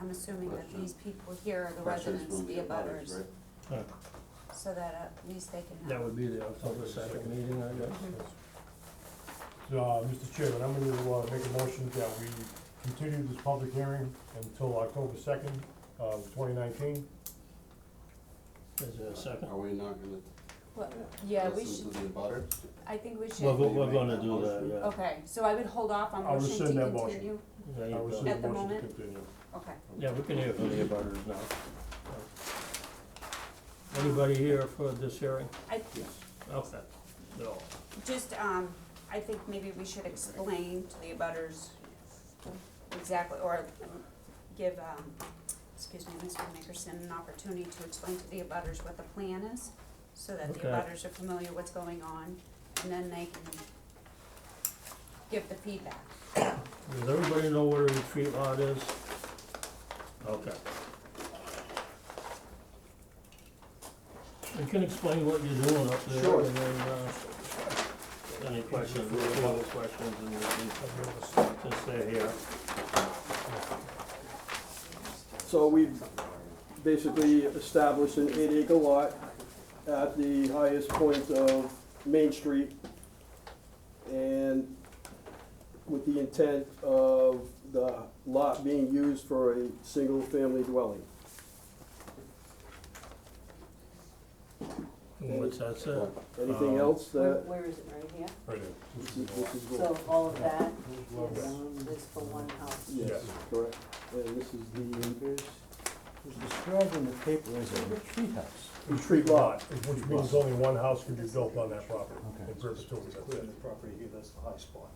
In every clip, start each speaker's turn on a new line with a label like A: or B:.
A: I'm assuming that
B: Question.
A: these people here are the
B: Questions
A: residents,
B: from
A: the
B: abutters,
A: abutters,
B: right?
C: Uh,
A: so that at least they can
C: That
A: have.
C: would be the October second meeting, I guess.
D: So, uh, Mr. Chairman, I'm gonna, uh, make a motion that we continue this public hearing until October second of twenty nineteen.
C: Is there a second?
B: Are we not gonna
A: Well, Yeah, we
B: listen
A: should,
B: to the abutters?
A: I think we
C: We're,
A: should,
B: Well,
C: go- we're gonna do that,
A: okay, so I would hold off on
D: I'll
A: motion to
D: rescind that motion.
A: continue,
C: yeah. There
D: I
C: you go.
D: rescind
A: At the
D: the motion to
A: moment?
D: continue.
A: okay.
C: Yeah, we can hear from the abutters now. Anybody here for this hearing?
A: I,
B: Yes.
C: Okay. No.
A: just, um, I think maybe we should explain to the abutters exactly, or um, give, um, excuse me, Mr. Nickerson an opportunity to explain to the abutters what the plan is, so that the
C: Okay.
A: abutters are familiar what's going on, and then they can give the feedback.
C: Does everybody know where the retreat lot is? Okay. You can explain what you're doing up there
D: Sure.
C: and then, uh, any questions, any other questions, and we can just stay here.
E: So we basically established an eight acre lot at the highest point of Main Street. And with the intent of the lot being used for a single family dwelling.
C: And What's that say?
E: Anything
B: Uh,
C: Um,
E: else
F: Where,
E: that,
F: where is it, right here?
D: Right there. This
E: this
D: is
E: is
D: the law.
E: this is
F: So
E: what,
F: all of that
D: Love that.
F: is, is for one house.
E: yes,
D: Yes.
E: correct. And this is
G: described in the paper as a retreat house.
E: the street lot.
D: Which means only one house can be built on that property in
G: Okay.
D: perpetuity, that's it.
G: property here, that's the high spot.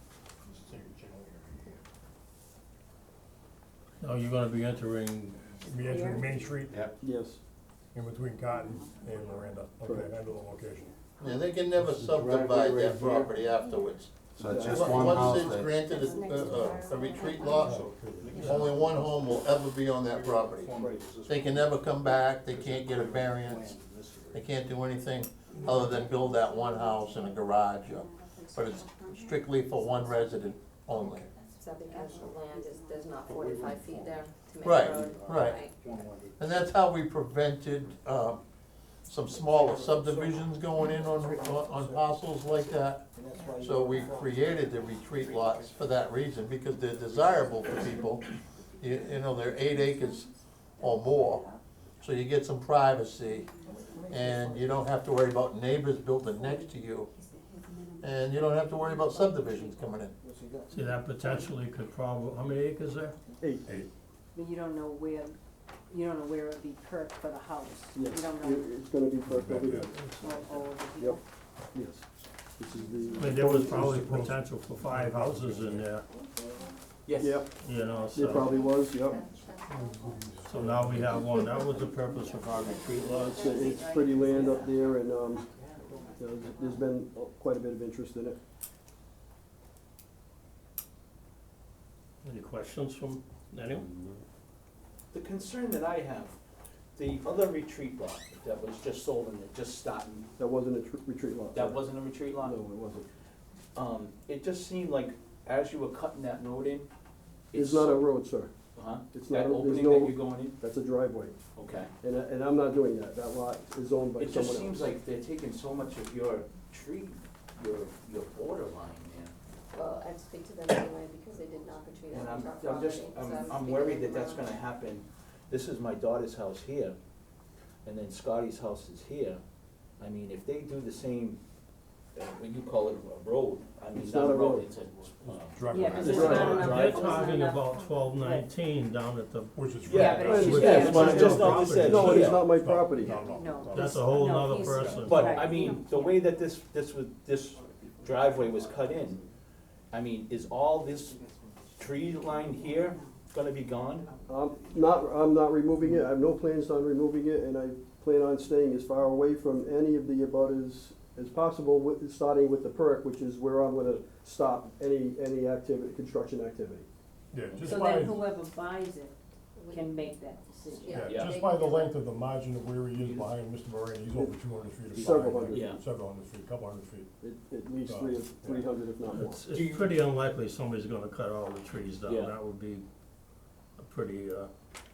C: No, Oh, you're gonna be entering,
D: We enter Main Street
B: Yep.
E: Yes,
D: in between Cotton and Miranda, okay, I know the location.
H: Yeah, they can never
G: This is the driveway
H: subdivide
G: right here.
H: that property afterwards.
B: So it's
E: Yeah.
B: just
H: Once-
B: one house
H: Once it's
B: that-
H: granted
F: That's next to
H: a- a,
F: our-
H: a retreat lot,
D: Oh,
H: only one home will ever be on that property. They can never come back, they can't get a variance, they can't do anything other than build that one house and a garage, or- but it's strictly for one resident only.
I: Is that because the land is, there's not forty-five feet there to make a
H: Right,
I: road?
H: right. And that's how we prevented, uh, some smaller subdivisions going in on, on parcels like that. So we created the retreat lots for that reason, because they're desirable for people. You, you know, they're eight acres or more, so you get some privacy. And you don't have to worry about neighbors building next to you, and you don't have to worry about subdivisions coming in.
C: see, that potentially could probably, how many acres there?
E: eight,
F: But you don't know where, you don't know where it'd be perked for the house. You
E: yes.
F: don't
E: It-
F: know,
E: It's gonna be perfectly,
F: all, all of the
E: yep,
F: people.
E: yes. This is
C: I
E: the.
C: mean, there was probably potential for five houses in there,
E: Yep,
C: you know, so.
E: there probably was, yep.
C: So now we have one, that was the purpose of our retreat lots.
E: It's, it's pretty land up there and, um, there's, there's been quite a bit of interest in it.
C: Any questions from anyone?
G: The concern that I have, the other retreat lot that was just sold and it just starting,
E: That wasn't a tr- retreat lot.
G: that wasn't a retreat lot?
E: No, it wasn't.
G: Um, it just seemed like as you were cutting that road in.
E: It's not a road, sir.
G: Uh-huh,
E: it's
G: that
E: not a- there's
G: opening
E: no-
G: that you're going in,
E: That's a driveway.
G: okay.
E: And, I- and I'm not doing that. That lot is owned by
G: It
E: someone else.
G: just seems like they're taking so much of your tree, your, your borderline there.
I: Well, I'd speak to them anyway because they did knock a tree
G: And
I: out
G: I'm,
I: of our
G: I'm
I: property.
G: just,
I: so I
G: I'm,
I: would
G: I'm
I: speak
G: worried
I: to
G: that
I: them
G: that's
I: around.
G: gonna happen. This is my daughter's house here, and then Scotty's house is here. I mean, if they do the same, uh, what you call it, a road, I mean,
E: It's
G: not
E: not
G: a
E: a
G: road,
E: road.
G: it's a, uh,
D: Driveway.
F: Yeah, 'cause
E: it's
C: They're
E: not enough-
C: they're
G: Right.
C: talking about twelve nineteen down at the,
D: Which is. right
G: Yeah, but
D: across
G: it's-
D: the-
G: yeah, it's not- it's not just that-
E: No, it is
G: Yeah.
E: not my
D: No,
E: property.
D: no, no,
F: No.
D: no.
C: that's a whole
F: No,
C: nother
F: he's-
C: person.
G: But, I
F: Right.
G: mean, the way that this, this was, this driveway was cut in, I mean, is all this tree line here gonna be gone?
E: I'm not, I'm not removing it. I have no plans on removing it and I plan on staying as far away from any of the abutters as possible with, starting with the perk, which is where I'm gonna stop any, any activity, construction activity.
D: Yeah, just
F: So
D: by.
F: then whoever buys it can make that decision.
I: Yeah.
D: Yeah, just by the length of the margin of where he is behind Mr. Moran, he's over two hundred feet of behind.
E: Several hundred.
G: Yeah.
D: Several hundred feet, couple hundred feet.
E: At, at least three, three hundred if not more.
C: It's,
G: Do you-
C: it's pretty unlikely somebody's gonna cut all the trees down,
G: Yeah.
C: that would be a pretty, uh,